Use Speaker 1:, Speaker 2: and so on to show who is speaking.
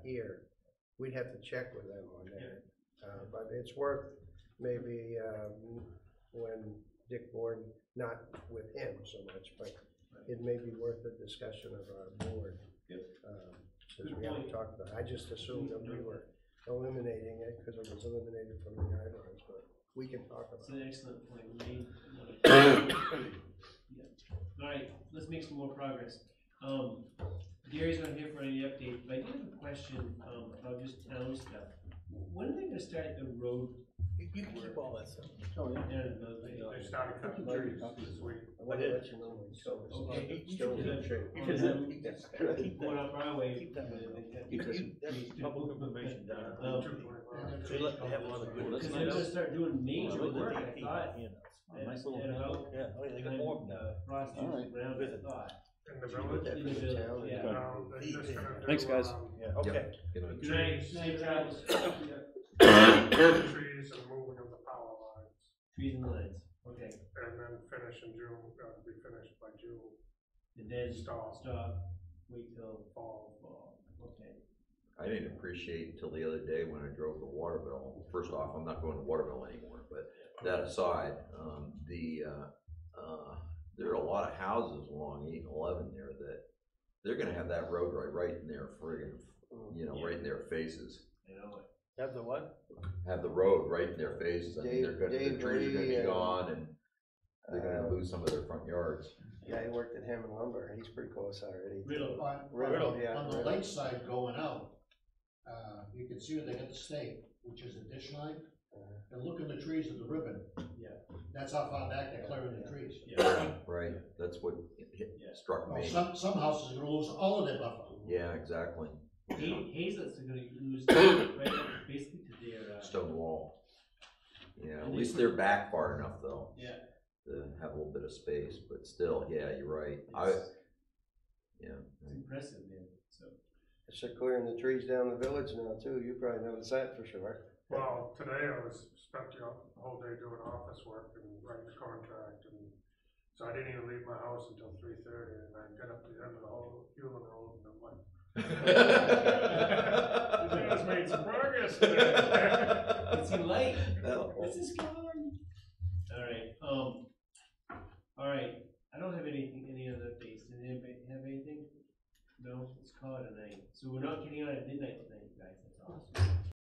Speaker 1: here. We'd have to check with them on that. Uh, but it's worth maybe, um, when Dick Bourne, not with him so much, but it may be worth a discussion of our board.
Speaker 2: Yep.
Speaker 1: um, Since we haven't talked about, it. I just assumed that we were eliminating it because it was eliminated from the guidelines, but we can talk
Speaker 3: That's
Speaker 1: about it.
Speaker 3: an excellent point, we made one of- Yeah. Alright, let's make some more progress. Um, Gary's not here for any update, but I do have a question, um, about just town stuff. When are they gonna start the road
Speaker 4: You you can keep all that stuff.
Speaker 3: down in Millville?
Speaker 5: They started cutting trees this week.
Speaker 1: I want to let you know when it's over.
Speaker 3: Okay.
Speaker 1: It's still in the tree.
Speaker 4: You can keep that stuff. Keep
Speaker 3: Going
Speaker 4: that.
Speaker 3: up Broadway.
Speaker 4: Keep that.
Speaker 2: Keep this-
Speaker 4: You- that's-
Speaker 5: Public information
Speaker 4: Uh,
Speaker 5: down.
Speaker 3: Um,
Speaker 4: They let- they have a lot of good-
Speaker 3: Cause they're gonna start doing major work, I thought,
Speaker 4: You know,
Speaker 3: at,
Speaker 2: Nice little-
Speaker 3: at about,
Speaker 4: Yeah, oh, yeah, they got
Speaker 3: time,
Speaker 4: more of them.
Speaker 3: uh, Frost
Speaker 2: All
Speaker 3: is around, I
Speaker 4: Visit.
Speaker 3: thought.
Speaker 5: In the
Speaker 1: Put
Speaker 5: village.
Speaker 1: that for the town.
Speaker 3: Yeah.
Speaker 5: No, they're just gonna do,
Speaker 2: Thanks, guys.
Speaker 5: um,
Speaker 4: Yeah, okay.
Speaker 3: Good night,
Speaker 5: Trees,
Speaker 3: safe travels.
Speaker 5: trees and moving of the power lines,
Speaker 3: Trees and lines, okay,
Speaker 5: and then uh, finish in June, uh, be finished by June,
Speaker 3: and then
Speaker 5: Stop.
Speaker 3: stop, wait till
Speaker 5: fall.
Speaker 3: fall, okay.
Speaker 6: I didn't appreciate until the other day when I drove to Waterville. First off, I'm not going to Waterville anymore, but that aside, um, the, uh, uh, there are a lot of houses along eight and eleven there that they're gonna have that road right, right in their friggin',
Speaker 1: Mm.
Speaker 6: you know, right in their faces.
Speaker 3: I know it.
Speaker 4: That's the what?
Speaker 6: Have the road right in their faces. I mean, they're gonna, the
Speaker 1: Dave-
Speaker 6: trees are gonna
Speaker 1: Dave
Speaker 6: be
Speaker 1: Ray, uh,
Speaker 6: gone and they're
Speaker 1: Uh,
Speaker 6: gonna lose some of their front yards.
Speaker 1: Yeah, he worked at Hammond Lumber, he's pretty close already.
Speaker 3: Riddle,
Speaker 7: On,
Speaker 1: Riddle, yeah,
Speaker 7: on the
Speaker 1: Riddle.
Speaker 7: lakeside going out, uh, you can see where they got the stake, which is the dish line,
Speaker 1: Uh,
Speaker 7: and look at the trees of the ribbon.
Speaker 3: Yeah.
Speaker 7: That's how far back they're clearing the trees.
Speaker 3: yeah,
Speaker 6: Right, that's what hit- hit-
Speaker 3: Yeah.
Speaker 6: struck
Speaker 7: Well,
Speaker 6: me.
Speaker 7: some, some houses are gonna lose all of their buffer.
Speaker 6: Yeah, exactly.
Speaker 3: Ha- Hazel's are gonna lose, right, up basically to their, uh,
Speaker 6: stone wall. Yeah, at
Speaker 3: And they
Speaker 6: least
Speaker 3: put-
Speaker 6: they're back far enough though,
Speaker 3: yeah.
Speaker 6: to have a little bit of space, but still, yeah, you're right, I,
Speaker 3: it's-
Speaker 6: yeah.
Speaker 3: It's impressive, man, so.
Speaker 1: So clearing the trees down the village now too, you probably noticed that for sure.
Speaker 5: Well, today I was, spent the o- whole day doing office work and writing the contract, and so I didn't even leave my house until three thirty, and I got up to the end of the whole, fueling road, and I'm like, You guys made some progress today.
Speaker 3: It's too late.
Speaker 6: No.
Speaker 3: This is gone. Alright, um, alright, I don't have anything, any other updates, did anybody have anything? No, let's call it a night, so we're not getting on at midnight tonight, guys, that's awesome.